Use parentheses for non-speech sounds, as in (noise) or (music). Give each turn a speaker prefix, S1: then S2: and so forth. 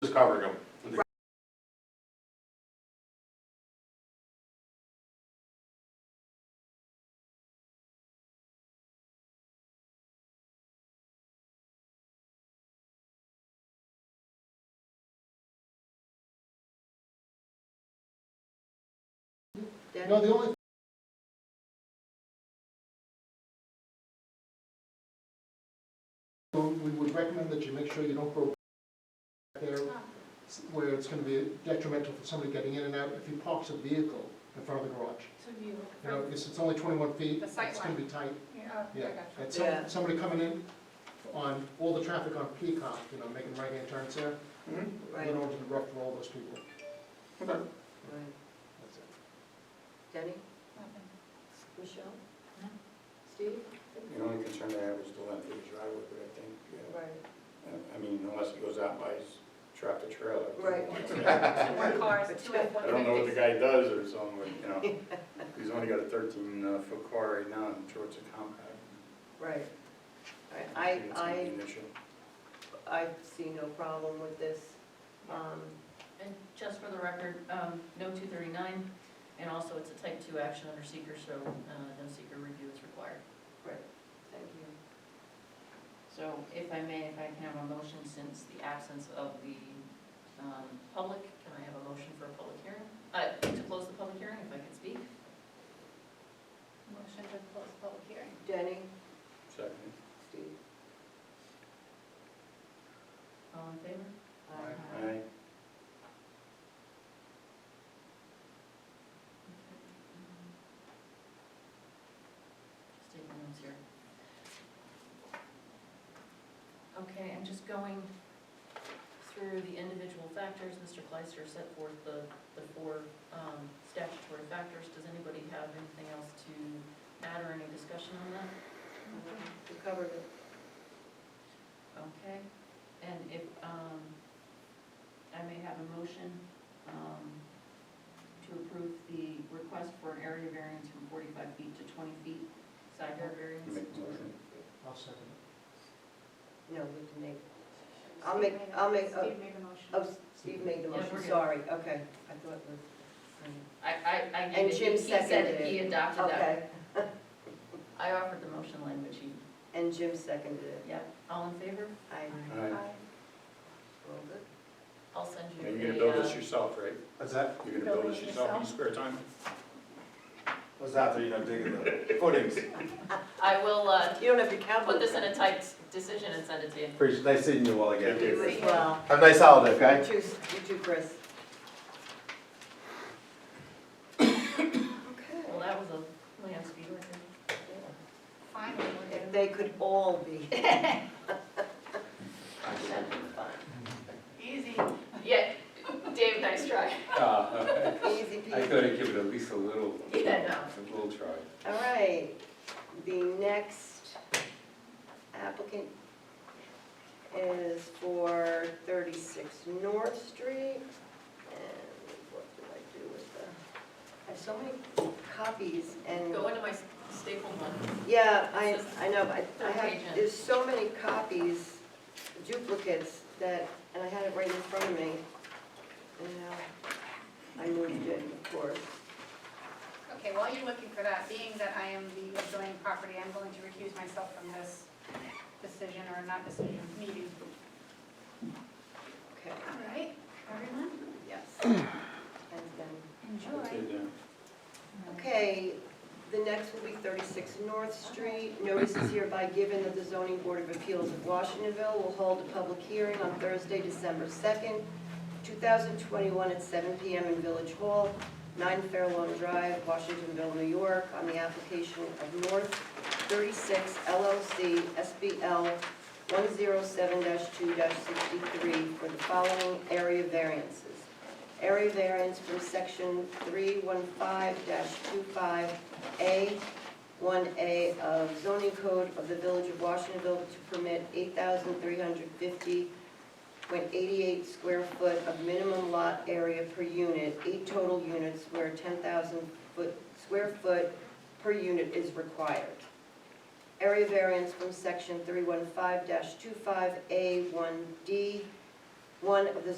S1: Just covering them.
S2: No, the only So we would recommend that you make sure you don't go back there where it's gonna be detrimental for somebody getting in and out if you parks a vehicle in front of the garage.
S3: So do you,
S2: You know, because it's only twenty-one feet,
S3: The sight
S2: it's gonna be tight,
S3: yeah, oh, I
S2: yeah.
S3: gotcha.
S2: And
S4: Yeah.
S2: some, somebody coming in on, all the traffic on Peacock, you know, making right-hand turns there,
S4: Right,
S2: you know, to the rough for all those people.
S1: Okay.
S4: right.
S2: That's it.
S4: Denny? Michelle? Steve?
S5: The only concern I have is the length of the driveway, but I think, uh,
S4: Right.
S5: I- I mean, unless he goes out by his tractor trailer.
S4: Right.
S3: More cars, two F
S5: (laughs)
S3: one
S5: I don't know what the
S3: fifties.
S5: guy does or something, but, you know, he's only got a thirteen uh, foot car right now, and I'm sure it's a compact.
S4: Right. I,
S5: It's gonna be
S4: I,
S5: an issue.
S4: I I see no problem with this. Um,
S6: And just for the record, um, no two thirty-nine, and also it's a type two action under seeker, so, uh, no seeker review is required.
S4: Right, thank you.
S6: So if I may, if I can have a motion since the absence of the, um, public, can I have a motion for a public hearing? Uh, to close the public hearing, if I can speak?
S3: Motion to close public hearing.
S4: Denny?
S5: Second.
S4: Steve?
S6: All in favor?
S4: Aye.
S5: Aye.
S6: Just taking notes here. Okay, I'm just going through the individual factors. Mr. Kleister set forth the, the four um, statutory factors. Does anybody have anything else to add or any discussion on that?
S4: We covered it.
S6: Okay, and if, um, I may have a motion, um, to approve the request for an area variance from forty-five feet to twenty feet, side yard
S5: You
S6: variance.
S5: Make the motion.
S2: I'll second it.
S4: No, we can make, I'll make, I'll make, oh,
S3: Steve made a motion.
S4: oh, Steve made the
S6: Yeah, we're
S4: motion,
S6: good.
S4: sorry, okay. I thought it was,
S6: I, I, I
S4: And
S6: gave it,
S4: Jim
S6: he said
S4: seconded
S6: it, he
S4: it.
S6: adopted um, that.
S4: okay.
S6: I offered the motion language, he,
S4: And Jim seconded it.
S6: yep, all in favor?
S4: I,
S5: Aye.
S3: Aye.
S4: well, good.
S6: I'll send you
S5: Now,
S6: a.
S5: you're gonna build
S6: uh,
S5: this yourself, right?
S7: What's that?
S5: You're gonna build
S3: Building
S5: this yourself in your
S3: yourself?
S5: spare time?
S7: What's after, you know, digging the footings?
S6: I will, uh,
S4: You don't have your cowboy.
S6: put this in a typed decision and send it to you.
S7: (laughs) Appreciate, nice seeing you all again.
S5: Thank
S4: You as well.
S7: Have a nice holiday,
S4: You
S7: okay?
S4: too, you too, Chris.
S6: Well, that was a land speed record.
S3: Finally, we're
S4: If
S3: getting.
S4: they could all be.
S6: Easy. Yeah, Dave, nice try.
S8: Uh,
S4: Easy
S8: I
S4: peasy.
S8: thought I'd give it at least a little,
S6: Yeah, no.
S8: a little try.
S4: All right, the next applicant is for 36 North Street. And what did I do with the, I have so many copies and,
S6: Go into my staple one.
S4: yeah, I, I know, but I- I
S6: Third page in.
S4: have, there's so many copies, duplicates that, and I had it right in front of me. And now I moved it, of course.
S3: Okay, while you're looking for that, being that I am the adjoining property, I'm going to recuse myself from this decision or not decision, meeting.
S4: Okay,
S3: All right, everyone,
S4: yes. And then
S3: enjoy.
S5: Did, uh,
S4: Okay, the next will be 36 North Street. Notice is hereby given that the zoning board of appeals of Washingtonville will hold a public hearing on Thursday, December 2nd, 2021 at 7 PM in Village Hall, 9 Fairlawn Drive, Washingtonville, New York, on the application of North 36 LLC SBL 107-2-63 for the following area variances area variance from section 315-25A, 1A of zoning code of the Village of Washingtonville to permit 8,350.88 square foot of minimum lot area per unit, eight total units where 10,000 foot, square foot per unit is required. Area variance from section 315-25A, 1D, 1 of the